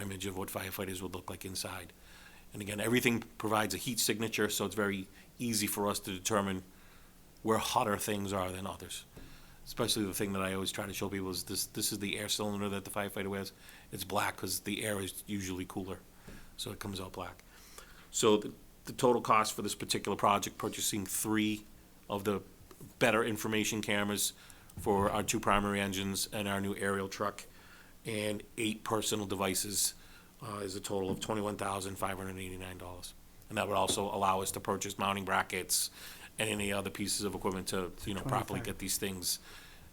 image of what firefighters would look like inside. And again, everything provides a heat signature, so it's very easy for us to determine where hotter things are than others. Especially the thing that I always try to show people is this, this is the air cylinder that the firefighter wears. It's black because the air is usually cooler, so it comes out black. So the, the total cost for this particular project, purchasing three of the better information cameras for our two primary engines and our new aerial truck, and eight personal devices, uh, is a total of twenty-one thousand five hundred and eighty-nine dollars. And that would also allow us to purchase mounting brackets and any other pieces of equipment to, you know, properly 25. get these things,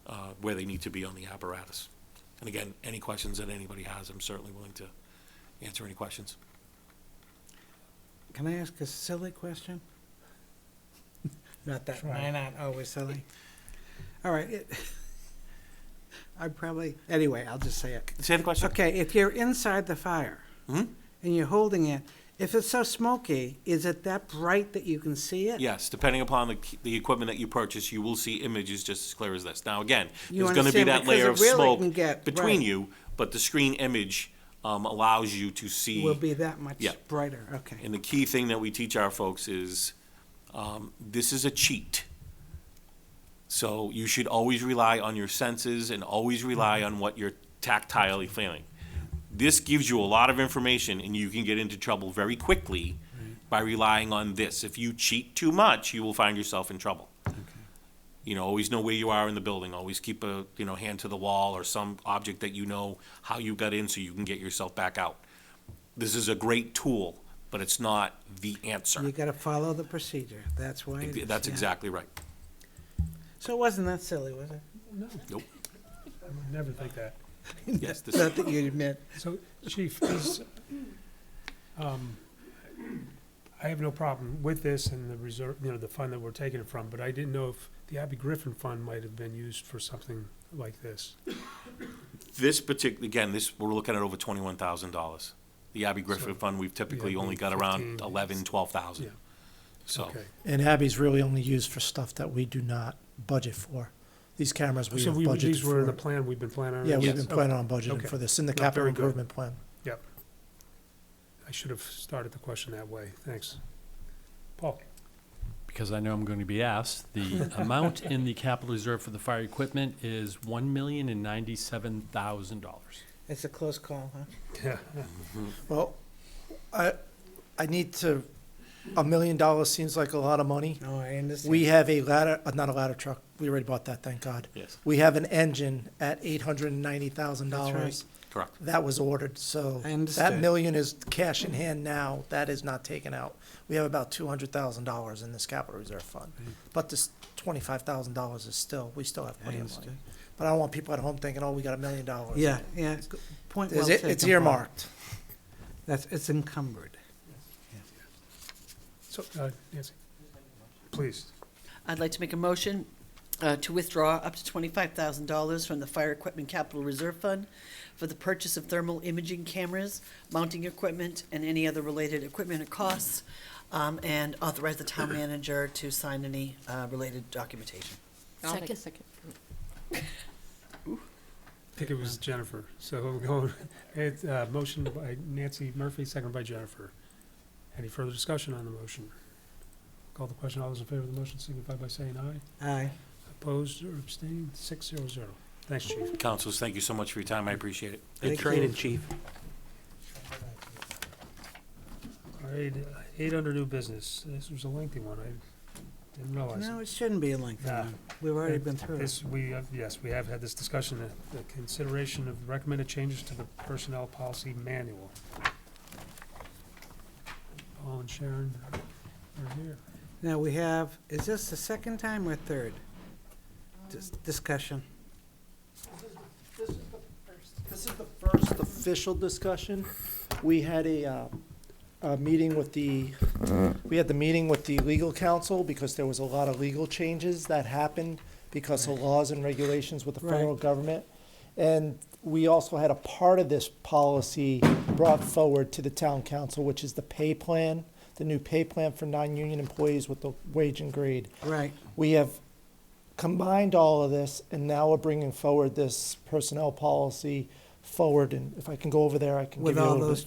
uh, where they need to be on the apparatus. And again, any questions that anybody has, I'm certainly willing to answer any questions. Can I ask a silly question? Not that, Sure. mine aren't always silly. All right, it, I probably, anyway, I'll just say it. Say the question. Okay, if you're inside the fire Mhm. and you're holding it, if it's so smoky, is it that bright that you can see it? Yes, depending upon the, the equipment that you purchase, you will see images just as clear as this. Now, again, You there's gonna be understand, that because layer it of really smoke can get- between right. you, but the screen image, um, allows you to see. Will be that much Yeah. brighter, okay. And the key thing that we teach our folks is, um, this is a cheat. So you should always rely on your senses and always rely on what you're tactilely feeling. This gives you a lot of information and you can get into trouble very quickly by relying on this. If you cheat too much, you will find yourself in trouble. You know, always know where you are in the building, always keep a, you know, hand to the wall or some object that you know how you got in so you can get yourself back out this is a great tool, but it's not the You answer. gotta follow the procedure, that's why. it is, That's yeah. exactly right. So it wasn't that silly, was it? Nope. I would never think that. Yes, this, Not that you'd admit. So, Chief, is, um, I have no problem with this and the reserve, you know, the fund that we're taking it from, but I didn't know if the Abby Griffin Fund might have been used for something like this. this particular, again, this, we're looking at over twenty-one thousand dollars. The Abby Griffin So- Fund, we've typically Yeah, only got around 15. eleven, twelve thousand. Yeah. So, Okay. And Abby's really only used for stuff that we do not budget for. These cameras we So have we, budgeted these were in the for. plan we've been planning on? Yeah, we've Yes. been planning on Okay. budgeting for this in the No, capital very good. improvement plan. I should have started the question that way. Thanks. Paul? because I know I'm going to be asked, the amount in the capital reserve for the fire equipment is one million and ninety-seven thousand dollars. It's a close call, huh? Yeah. Well, I, I need to, a million dollars seems like a lot of money. No, I understand. We have a ladder, uh, not a ladder truck, we already bought that, thank God. yes, We have an engine at eight hundred and ninety thousand right. dollars. correct. That was ordered, so. I understand. That million is cash in hand now, that is not taken out. We have about two hundred thousand dollars in this capital reserve fund. But this twenty-five thousand dollars is still, we still have Hmm. I plenty of money. understand. But I don't want people at home thinking, oh, we got a million dollars. in Yeah, it. yeah, g- point well Is taken. it- It's Paul. earmarked. That's, it's encumbered. So, uh, Nancy? Please. I'd like to make a motion uh, to withdraw up to twenty-five thousand dollars from the Fire Equipment Capital Reserve Fund for the purchase of thermal imaging cameras, mounting equipment, and any other related equipment or costs, um, and authorize the town manager to sign any uh, related documentation. Second. I think it was Jennifer. So we'll go, it's, uh, motion by Nancy Murphy, second by Jennifer. Any further discussion on the motion? Call the question. All those in favor of the motion signify by saying aye. Aye. Opposed or abstained? Six zero zero. Thanks, Chief. Councilors, thank you so much for your time. I appreciate it. Thank training, you. chief. All right, eight under new business. This was a lengthy one. I didn't realize. it. No, it shouldn't be a lengthy Nah. one. We've already been through it. This, we, have- yes, we have had this discussion, the- the consideration of recommended changes to the personnel policy manual. Paul and Sharon are here. Now, we have, is this the second time or third Dis- discussion? This is the first official discussion. We had a, uh, a meeting with the, we had the meeting with the legal counsel because there was a lot of legal changes that happened because of laws and regulations with the federal Right. government. And we also had a part of this policy brought forward to the town council, which is the pay plan, the new pay plan for non-union employees with the wage and grade. Right, We have combined all of this, and now we're bringing forward this personnel policy forward, and if I can go over there, I can give With you a all little bit. those